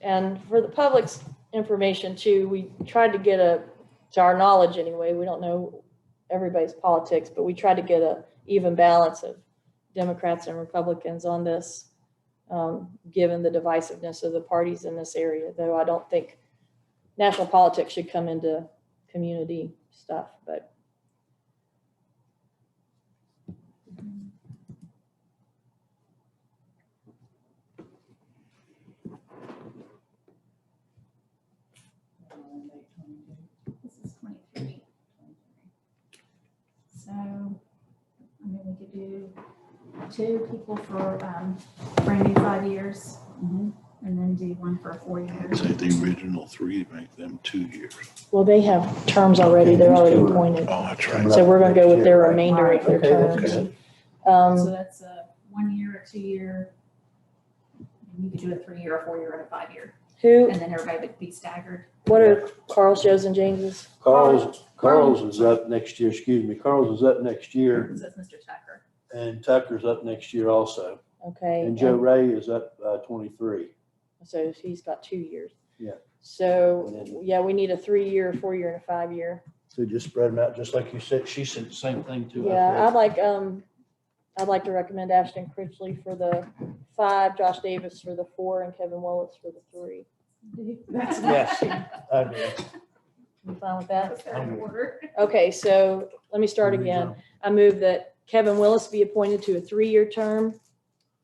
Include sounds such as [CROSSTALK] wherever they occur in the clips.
And for the public's information too, we tried to get a, to our knowledge anyway, we don't know everybody's politics, but we tried to get a even balance of Democrats and Republicans on this, um, given the divisiveness of the parties in this area, though I don't think national politics should come into community stuff, but This is twenty-three. So, I mean, we could do two people for, um, brand new five years, and then do one for four years. Say the original three, make them two years. well, they have terms already, they're already appointed. Oh, that's right. So we're gonna go with their remainder of their Okay, that's terms. Um, So that's a one-year, a two-year. and You could do a three-year, a four-year, and a five-year, Who, and then everybody would be staggered. what are Carl's, Joe's and James's? Carl's, Carl's is up next year, excuse me, Carl's is up next year, So that's Mr. Tucker. and Tucker's up next year also. Okay. And Joe Ray is up uh, twenty-three. So he's got two years. Yeah. So, And then- yeah, we need a three-year, four-year and a five-year. So just spread them out, just like you said, she said the same thing too. I Yeah, I'd think. like, um, I'd like to recommend Ashton Critchley for the five, Josh Davis for the four and Kevin Willis for the three. Yes. I do. You fine with that? [LAUGHS] That's their order. Okay, so let me start again. I move that Kevin Willis be appointed to a three-year term.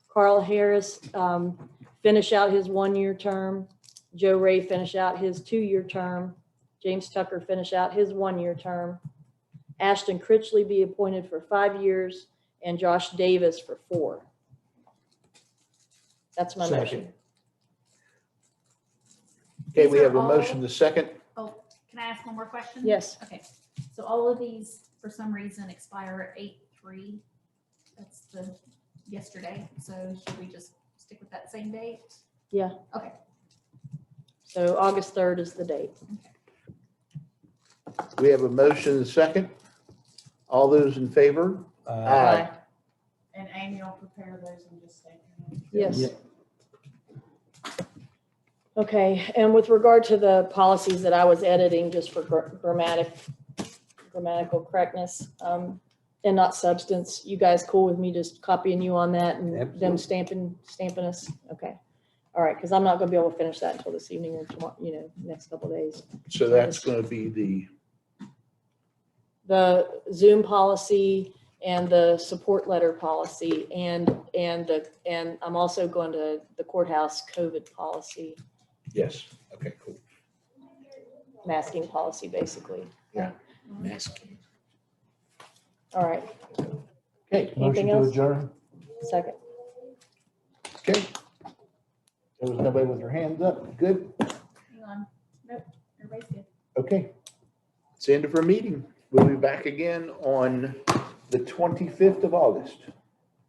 Carl Harris um, finish out his one-year term. Joe Ray finish out his two-year term. James Tucker finish out his one-year term. Ashton Critchley be appointed for five years and Josh Davis for four. That's my motion. Okay, we These are have a all- motion, the second. Oh, can I ask one more question? Yes, Okay, so all of these, for some reason, expire at eight three. That's the yesterday, so should we just stick with that same date? so August 3rd is the date. We have a motion, the second. All those in favor? Aye. And Amy will prepare those and just say. Yes. Yeah. Okay, and with regard to the policies that I was editing, just for gr- grammatic, grammatical correctness, um, and not substance, you guys cool with me just copying you on that and them Absolutely. stamping, stamping us? Okay, all right, because I'm not gonna be able to finish that until this evening or tomorrow, you know, next couple days. So that's going to be the, The Zoom policy and the support letter policy and, and the, and I'm also going to the courthouse COVID policy. yes, okay, cool. masking policy, basically. Mask. All right, Okay, anything Motion to else? adjourn. Second. okay. There was nobody with their hands up. Good, Hang on, nope, everybody's good. okay. It's the end of our meeting. We'll be back again on the 25th of August.